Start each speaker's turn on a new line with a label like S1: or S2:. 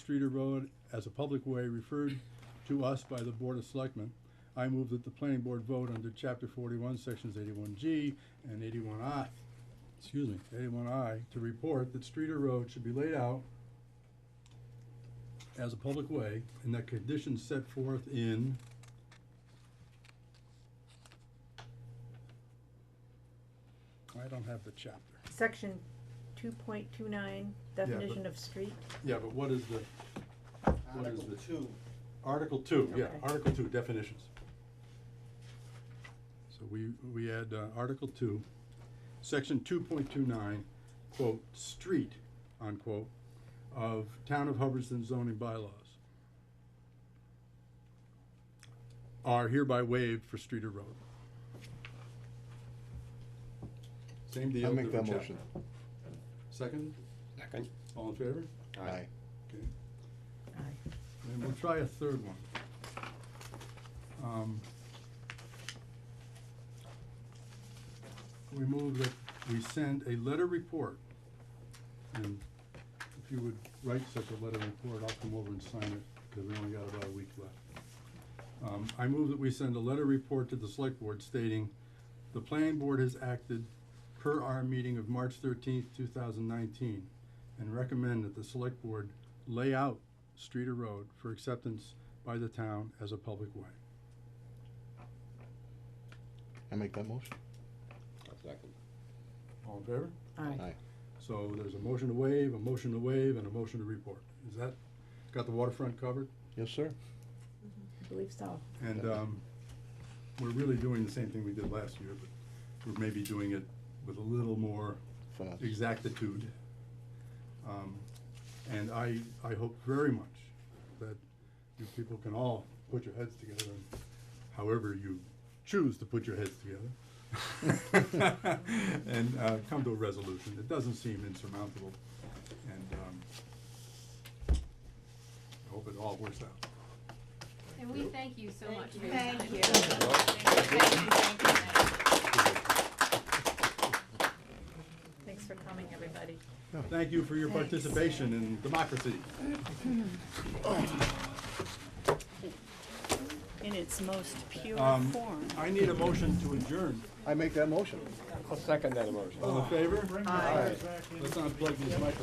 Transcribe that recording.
S1: Streeter Road as a public way referred to us by the Board of Selectmen, I move that the planning board vote under chapter forty-one, sections eighty-one G and eighty-one I, excuse me, eighty-one I, to report that Streeter Road should be laid out as a public way and that conditions set forth in I don't have the chapter.
S2: Section two point two nine,
S1: but-
S2: definition of street,
S1: Yeah, but what is the, What is
S3: Article
S1: it?
S3: two,
S1: Article two, yeah,
S2: Okay.
S1: Article two, definitions. So we, we add, uh, Article two, section two point two nine, quote, street, unquote, of Town of Hubbardston zoning bylaws are hereby waived for Streeter Road. Same deal.
S4: I'll make that
S1: different
S4: motion.
S1: chapter. Second,
S4: Second.
S1: all in favor?
S4: Aye.
S1: Okay. And we'll try a third one. Um, We move that we send a letter report, and if you would write such a letter report, I'll come over and sign it, because we only got about a week left. Um, I move that we send a letter report to the select board stating, the planning board has acted per our meeting of March thirteenth, two thousand nineteen, and recommend that the select board lay out Streeter Road for acceptance by the town as a public way.
S4: I make that motion?
S3: second.
S1: All in favor?
S2: aye,
S1: So there's a motion to waive, a motion to waive, and a motion to report. Is that, got the waterfront covered?
S4: Yes, sir.
S2: I believe so.
S1: And, um, we're really doing the same thing we did last year, but we're maybe doing it with a little more
S4: Fast.
S1: exactitude. Um, and I, I hope very much that you people can all put your heads together, and however you choose to put your heads together. And, uh, come to a resolution. It doesn't seem insurmountable, and, um, I hope it all works out.
S5: And we thank you so much for your time.
S6: Thank you.
S5: Thank you.
S2: Thanks for coming, everybody.
S1: Thank you for your participation in democracy.
S6: In its most pure
S1: Um,
S6: form.
S1: I need a motion to adjourn.
S4: I make that motion.
S3: I'll second that motion.
S1: All in favor? Aye. Let's unplug these microphones.